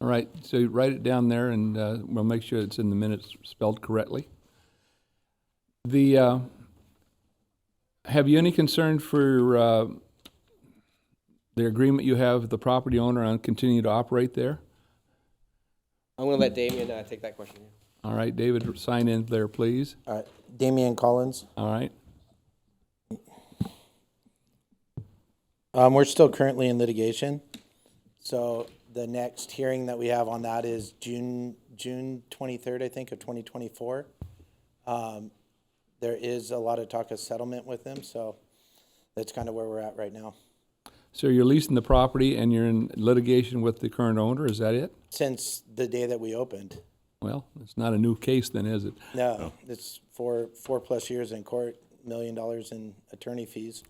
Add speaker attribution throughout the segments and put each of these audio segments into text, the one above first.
Speaker 1: All right, so write it down there, and uh, we'll make sure it's in the minutes spelled correctly. The, uh, have you any concern for uh, the agreement you have with the property owner on continuing to operate there?
Speaker 2: I'm going to let Damien uh, take that question.
Speaker 1: All right, David, sign in there, please.
Speaker 3: All right, Uh, Damian Collins.
Speaker 1: All right,
Speaker 3: Um, we're still currently in litigation. So the next hearing that we have on that is June, June twenty-third, I think, of twenty twenty-four. Um, there is a lot of talk of settlement with them, so that's kind of where we're at right now.
Speaker 1: so you're leasing the property and you're in litigation with the current owner, is that it?
Speaker 3: Since the day that we opened.
Speaker 1: Well, it's not a new case then, is it?
Speaker 3: No, it's four, four-plus years in court, million dollars in attorney fees.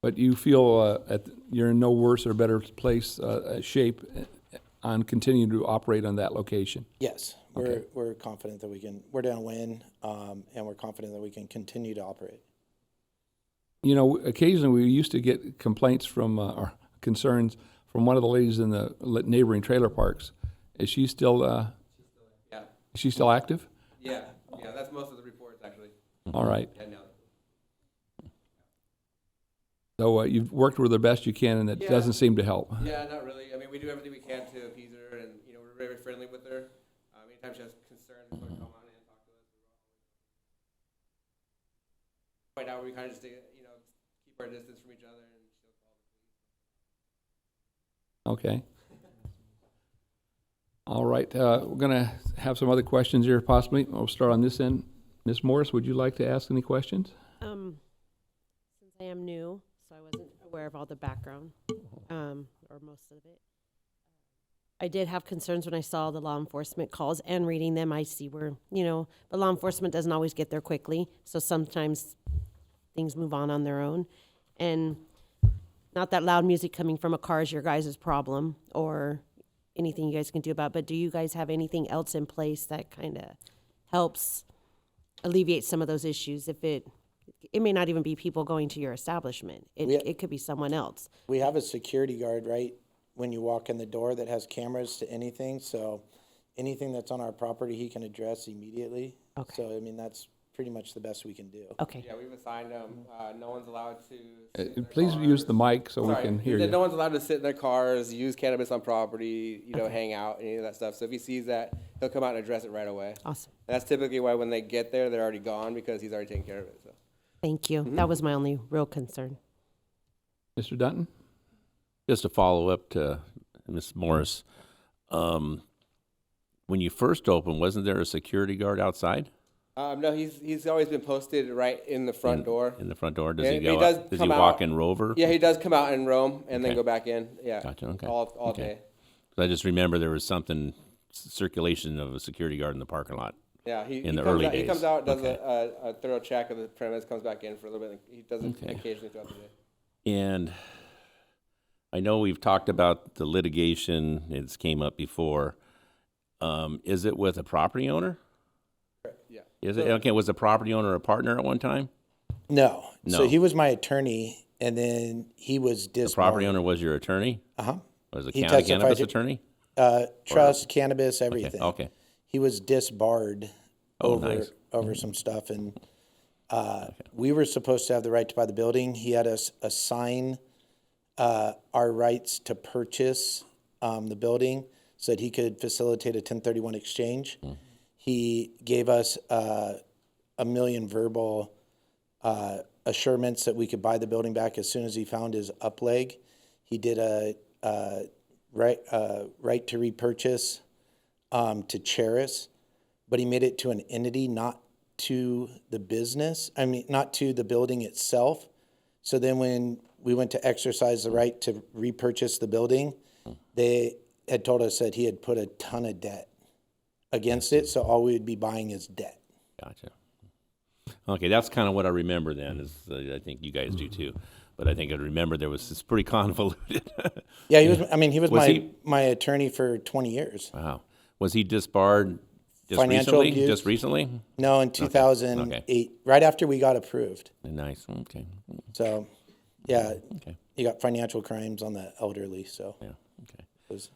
Speaker 1: But you feel uh, at, you're in no worse or better place, uh, uh, shape uh, on continuing to operate on that location?
Speaker 3: Yes, we're, we're confident that we can, we're downwind, um, and we're confident that we can continue to operate.
Speaker 1: You know, occasionally we used to get complaints from, uh, or concerns from one of the ladies in the li- neighboring trailer parks. Is she still, uh,
Speaker 2: Yeah,
Speaker 1: is she still active?
Speaker 2: yeah, yeah, that's most of the reports, actually.
Speaker 1: All right.
Speaker 2: Yeah, no.
Speaker 1: So uh, you've worked with her best you can and it
Speaker 2: Yeah.
Speaker 1: doesn't seem to help.
Speaker 2: Yeah, not really. I mean, we do everything we can to appease her, and, you know, we're very friendly with her. Um, Anytime she has concerns, she'll come on in and talk to us. Right now, we kind of just, you know, keep our distance from each other, and she'll call.
Speaker 1: Okay. All right, uh, we're gonna have some other questions here possibly. We'll start on this end. Ms. Morris, would you like to ask any questions?
Speaker 4: Um, since I am new, so I wasn't aware of all the background, um, or most of it. I did have concerns when I saw the law enforcement calls and reading them. I see where, you know, but law enforcement doesn't always get there quickly. So sometimes things move on on their own. And not that loud music coming from a car is your guys' problem or anything you guys can do about, it, but do you guys have anything else in place that kind of helps alleviate some of those issues if it it may not even be people going to your establishment. It,
Speaker 3: Yeah.
Speaker 4: it could be someone else.
Speaker 3: We have a security guard, right, when you walk in the door that has cameras to anything, so anything that's on our property, he can address immediately.
Speaker 4: Okay.
Speaker 3: So, I mean, that's pretty much the best we can do.
Speaker 4: Okay.
Speaker 2: Yeah, we've assigned them. Uh, no one's allowed to.
Speaker 1: Uh,
Speaker 2: sit in their
Speaker 1: Please use
Speaker 2: cars.
Speaker 1: the mic so we
Speaker 2: Sorry,
Speaker 1: can hear
Speaker 2: that
Speaker 1: you.
Speaker 2: No one's allowed to sit in their cars, use cannabis on property, you know, hang out, any of that stuff. So if he sees that, he'll come out and address it right away.
Speaker 4: Awesome.
Speaker 2: That's typically why when they get there, they're already gone because he's already taken care of it. So.
Speaker 4: Thank you. That was my only real concern.
Speaker 1: Mr. Dunton?
Speaker 5: Just to follow up to Ms. Morris, um, when you first opened, wasn't there a security guard outside
Speaker 2: Um, no, he's he's always been posted right in the front door.
Speaker 5: in the front door? Does
Speaker 2: Yeah,
Speaker 5: he
Speaker 2: he
Speaker 5: go?
Speaker 2: does
Speaker 5: out- does he
Speaker 2: come
Speaker 5: walk
Speaker 2: out.
Speaker 5: in rover?
Speaker 2: Yeah, he does come out and roam and then
Speaker 5: Okay.
Speaker 2: go back in. Yeah,
Speaker 5: Gotcha, okay.
Speaker 2: all all
Speaker 5: Okay.
Speaker 2: day.
Speaker 5: I just remember there was something c- circulation of a security guard in the parking lot.
Speaker 2: Yeah, he,
Speaker 5: In
Speaker 2: he
Speaker 5: the
Speaker 2: comes
Speaker 5: early
Speaker 2: out, He
Speaker 5: days.
Speaker 2: comes out, does
Speaker 5: Okay.
Speaker 2: a, a, a thorough check of the premise, comes back in for a little bit. He does it
Speaker 5: Okay.
Speaker 2: occasionally throughout the day.
Speaker 5: And I know we've talked about the litigation. It's came up before. Um, is it with a property owner?
Speaker 2: Yeah.
Speaker 5: Is it okay? Was the property owner a partner at one time?
Speaker 3: No, so
Speaker 5: No.
Speaker 3: he was my attorney, and then he was
Speaker 5: The property
Speaker 3: disbarred.
Speaker 5: owner was your attorney.
Speaker 3: Uh-huh.
Speaker 5: Was the
Speaker 3: He
Speaker 5: county
Speaker 3: testified
Speaker 5: cannabis
Speaker 3: to-
Speaker 5: attorney?
Speaker 3: Uh, trust, cannabis,
Speaker 5: Okay,
Speaker 3: everything.
Speaker 5: Okay.
Speaker 3: He was disbarred
Speaker 5: Oh,
Speaker 3: over,
Speaker 5: nice.
Speaker 3: over some stuff, and, uh, we were supposed to have the right to buy the building. He had us assign, uh, our rights to purchase, um, the building so that he could facilitate a ten thirty-one exchange.
Speaker 5: Hmm.
Speaker 3: He gave us, uh, a million verbal, uh, assurements that we could buy the building back as soon as he found his up leg. He did a, uh, right, uh, right to repurchase, um, to Cheris, but he made it to an entity, not to the business. I mean, not to the building itself. So then when we went to exercise the right to repurchase the building, they had told us that he had put a ton of debt against it. So all we would be buying is debt.
Speaker 5: Gotcha. Okay, that's kind of what I remember then. Is uh, I think you guys do too, but I think I remember there was it's pretty convoluted.
Speaker 3: Yeah, he was. I mean, he was,
Speaker 5: Was
Speaker 3: my
Speaker 5: he-
Speaker 3: my attorney for twenty years.
Speaker 5: wow, was he disbarred just
Speaker 3: Financial
Speaker 5: recently?
Speaker 3: abuse.
Speaker 5: Just recently? Mm-hmm.
Speaker 3: No, in two thousand eight, right after we got approved.
Speaker 5: Nice. Okay.
Speaker 3: So, yeah,
Speaker 5: Okay.
Speaker 3: you got financial crimes on the elderly. So
Speaker 5: Yeah. Okay.
Speaker 3: it was